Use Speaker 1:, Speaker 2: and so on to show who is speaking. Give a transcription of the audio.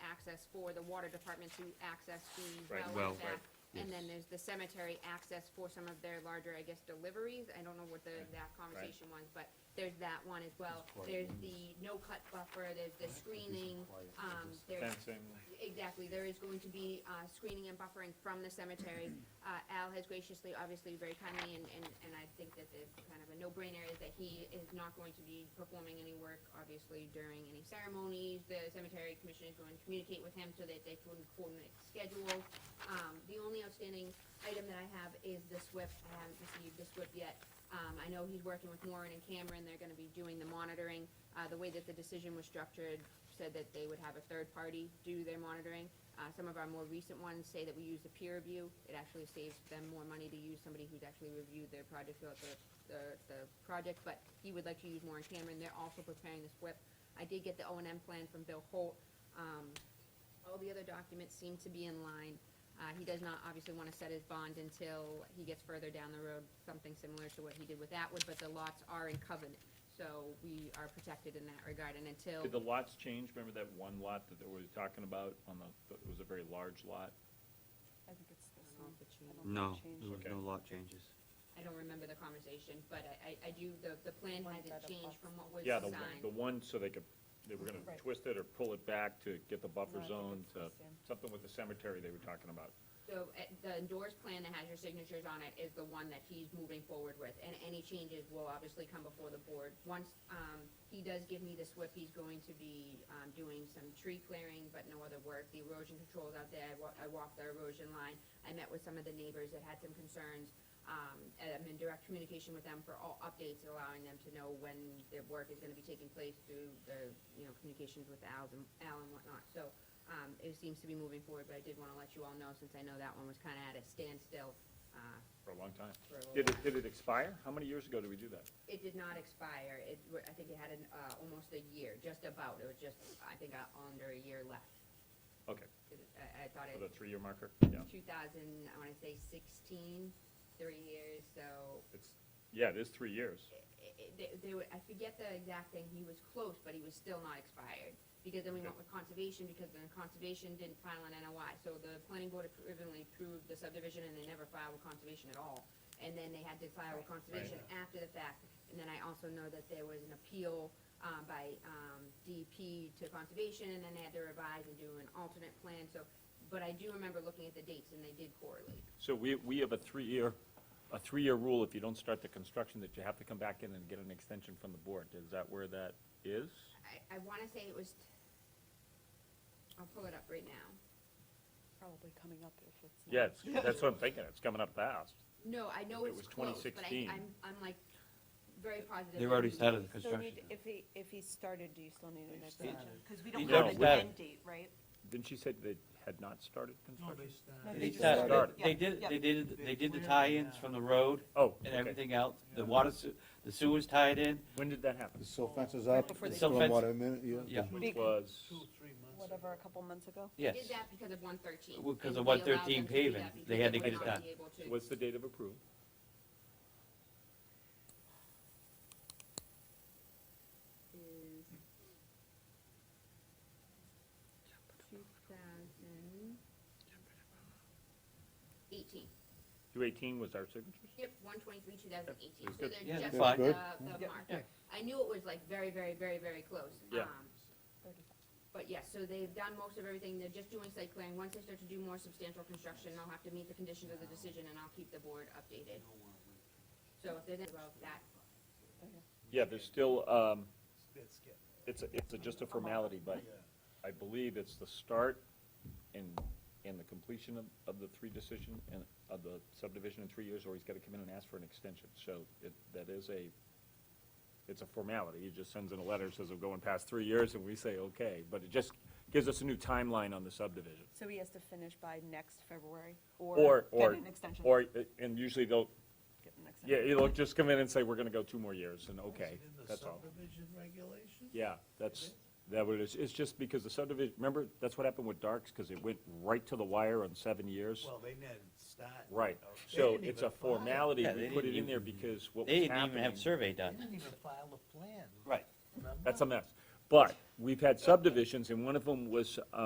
Speaker 1: access for the water department to access the
Speaker 2: Right,
Speaker 1: well
Speaker 2: well,
Speaker 1: and back.
Speaker 2: right,
Speaker 1: And
Speaker 2: yes.
Speaker 1: then there's the cemetery access for some of their larger, I guess, deliveries. I don't know what the exact conversation was, but there's that one as well.
Speaker 3: It's quite
Speaker 1: There's the
Speaker 3: limited.
Speaker 1: no-cut buffer, there's the screening,
Speaker 3: quiet, it
Speaker 1: um,
Speaker 3: is.
Speaker 1: there's
Speaker 2: fencing,
Speaker 1: Exactly, there is going to be, uh, screening and buffering from the cemetery. Uh, Al has graciously, obviously, very kindly, and, and, and I think that it's kind of a no-brainer is that he is not going to be performing any work, obviously, during any ceremonies. The cemetery commission is going to communicate with him so that they can coordinate schedule. Um, the only outstanding item that I have is the SWIP. I haven't received the SWIP yet. Um, I know he's working with Warren and Cameron. They're gonna be doing the monitoring. Uh, the way that the decision was structured said that they would have a third party do their monitoring. Uh, some of our more recent ones say that we use a peer review. It actually saves them more money to use somebody who's actually reviewed their project throughout the, the, the project, but he would like to use Warren Cameron. They're also preparing this SWIP. I did get the O and M plan from Bill Holt. Um, all the other documents seem to be in line. Uh, he does not obviously want to set his bond until he gets further down the road, something similar to what he did with Atwood, but the lots are in covenant. So we are protected in that regard and until,
Speaker 2: did the lots change, remember that one lot that we were talking about on the, it was a very large lot?
Speaker 4: I think it's this
Speaker 1: I don't know
Speaker 4: one.
Speaker 1: if it
Speaker 4: I
Speaker 1: changed.
Speaker 4: don't
Speaker 5: No,
Speaker 4: think it changed.
Speaker 5: there was
Speaker 2: Okay.
Speaker 5: no lot changes.
Speaker 1: I don't remember the conversation, but I, I, I do, the, the plan
Speaker 4: One
Speaker 1: hasn't
Speaker 4: that
Speaker 1: changed
Speaker 4: abuts.
Speaker 1: from what was
Speaker 2: Yeah, the,
Speaker 1: signed.
Speaker 2: the one, so they could, they were gonna
Speaker 4: Right.
Speaker 2: twist it or pull it back to get the
Speaker 4: No,
Speaker 2: buffer
Speaker 4: I think
Speaker 2: zone
Speaker 4: it's
Speaker 2: to,
Speaker 4: this in.
Speaker 2: something with the cemetery they were talking about.
Speaker 1: So, uh, the endorsed plan that has your signatures on it is the one that he's moving forward with, and any changes will obviously come before the board. Once, um, he does give me the SWIP, he's going to be, um, doing some tree clearing, but no other work. The erosion control's out there, I wa- I walked the erosion line, I met with some of the neighbors that had some concerns. Um, and I'm in direct communication with them for all updates, allowing them to know when their work is gonna be taking place through the, you know, communications with Al and, Al and whatnot. So, um, it seems to be moving forward, but I did wanna let you all know, since I know that one was kinda at a standstill, uh,
Speaker 2: for a long time.
Speaker 1: for a little
Speaker 2: Did it,
Speaker 1: while.
Speaker 2: did it expire? How many years ago did we do that?
Speaker 1: It did not expire, it, wa- I think it had an, uh, almost a year, just about, it was just, I think, uh, under a year left.
Speaker 2: Okay,
Speaker 1: It- I, I thought
Speaker 2: for the
Speaker 1: it,
Speaker 2: three-year marker, yeah.
Speaker 1: two thousand, I wanna say sixteen, three years, so
Speaker 2: It's, yeah, it is three years.
Speaker 1: it- it- they, they were, I forget the exact thing, he was close, but he was still not expired. Because then we went with conservation, because then conservation didn't file an NOI, so the planning board originally approved the subdivision and they never filed with conservation at all. And then they had to file with conservation after the fact, and then I also know that there was an appeal, um, by, um, DEP to conservation, and then they had to revise and do an alternate plan, so, but I do remember looking at the dates and they did correlate.
Speaker 2: So we, we have a three-year, a three-year rule, if you don't start the construction, that you have to come back in and get an extension from the board. Is that where that is?
Speaker 1: I, I wanna say it was, I'll pull it up right now.
Speaker 4: Probably coming up if it's. not.
Speaker 2: Yeah, it's- that's what I'm thinking, it's coming up fast.
Speaker 1: No, I know
Speaker 2: It
Speaker 1: it's
Speaker 2: was
Speaker 1: close, but I,
Speaker 2: 2016.
Speaker 1: I'm, I'm like very positive.
Speaker 5: They've
Speaker 1: that
Speaker 5: already
Speaker 1: we-
Speaker 5: started the
Speaker 4: Still
Speaker 5: construction.
Speaker 4: need, if he, if he started, do you still need an
Speaker 3: They've
Speaker 4: extension?
Speaker 3: started.
Speaker 4: Because we
Speaker 5: He
Speaker 4: don't
Speaker 2: don't
Speaker 4: have an
Speaker 5: have-
Speaker 4: end date, right?
Speaker 2: Didn't she say they had not uh, started
Speaker 6: No,
Speaker 2: construction?
Speaker 6: they
Speaker 4: No,
Speaker 6: started.
Speaker 4: They
Speaker 5: They
Speaker 4: just
Speaker 5: started-
Speaker 2: started.
Speaker 5: They
Speaker 4: Yeah,
Speaker 5: did,
Speaker 4: yeah.
Speaker 5: they did,
Speaker 6: They
Speaker 5: they did the
Speaker 6: cleared it
Speaker 5: tie-ins
Speaker 6: now.
Speaker 5: from the road
Speaker 2: Oh,
Speaker 5: and
Speaker 2: okay.
Speaker 5: everything else. The
Speaker 6: Yeah.
Speaker 5: water, se- the sewer's tied in.
Speaker 2: When did that happen?
Speaker 7: The silt fence is
Speaker 4: Right
Speaker 7: up,
Speaker 4: before
Speaker 7: the
Speaker 4: they-
Speaker 7: stormwater minute, yeah.
Speaker 5: Yeah.
Speaker 2: Which
Speaker 4: Big-
Speaker 2: was,
Speaker 6: Two, three months.
Speaker 4: Whatever, a
Speaker 6: ago.
Speaker 4: couple months ago?
Speaker 1: we
Speaker 5: Yes.
Speaker 1: Did that because of one thirteen.
Speaker 5: Well, 'cause of 113 paving, they had to get it done.
Speaker 2: what's the date of approval?
Speaker 1: Two thousand eighteen.
Speaker 2: Two eighteen was our signatures?
Speaker 1: Yep, one twenty-three, two thousand eighteen,
Speaker 2: It's
Speaker 1: so
Speaker 2: good.
Speaker 1: they're
Speaker 5: Yeah,
Speaker 1: just at
Speaker 5: that's
Speaker 7: fine.
Speaker 1: the,
Speaker 7: Good.
Speaker 1: the
Speaker 4: Yeah.
Speaker 1: marker. I knew it was like very, very, very, very close.
Speaker 2: Yeah.
Speaker 1: Um, But yes, so they've done most of everything, they're just doing site clearing, once they start to do more substantial construction, they'll have to meet the conditions of the decision, and I'll keep the board updated. So if there's anything about that,
Speaker 2: Yeah, there's still, um,
Speaker 6: That's good.
Speaker 2: it's, a- it's a- just a formality, but I believe it's the start and, and the completion of, of the three decision and of the subdivision in three years, or he's gotta come in and ask for an extension. So it, that is a, it's a formality. He just sends in a letter, says we're going past three years, and we say, okay. But it just gives us a new timeline on the subdivision.
Speaker 4: So he has to finish by next February or
Speaker 2: Or,
Speaker 4: get
Speaker 2: or,
Speaker 4: an extension?
Speaker 2: or, and usually they'll,
Speaker 4: Get an
Speaker 2: yeah,
Speaker 4: extension.
Speaker 2: it'll just come in and say, we're gonna go two more years, and okay,
Speaker 6: Is it in the
Speaker 2: that's all.
Speaker 6: Subdivision regulation?
Speaker 2: Yeah, that's, that what it is, it's just because the subdivision, remember, that's what happened with Darks, because it went right to the wire on seven years.
Speaker 6: Well, they didn't start.
Speaker 2: Right,
Speaker 6: Oh, they
Speaker 2: so
Speaker 6: didn't
Speaker 2: it's
Speaker 6: even
Speaker 2: a formality,
Speaker 5: Yeah,
Speaker 2: we
Speaker 5: they
Speaker 2: put it
Speaker 5: didn't
Speaker 2: in there
Speaker 5: even-
Speaker 2: because what
Speaker 5: They
Speaker 2: was
Speaker 5: didn't even have
Speaker 2: happening.
Speaker 5: survey
Speaker 6: file- They
Speaker 5: done.
Speaker 6: didn't even file a plan.
Speaker 5: Right.
Speaker 6: remember?
Speaker 2: That's a mess, but we've had subdivisions, and one of them was,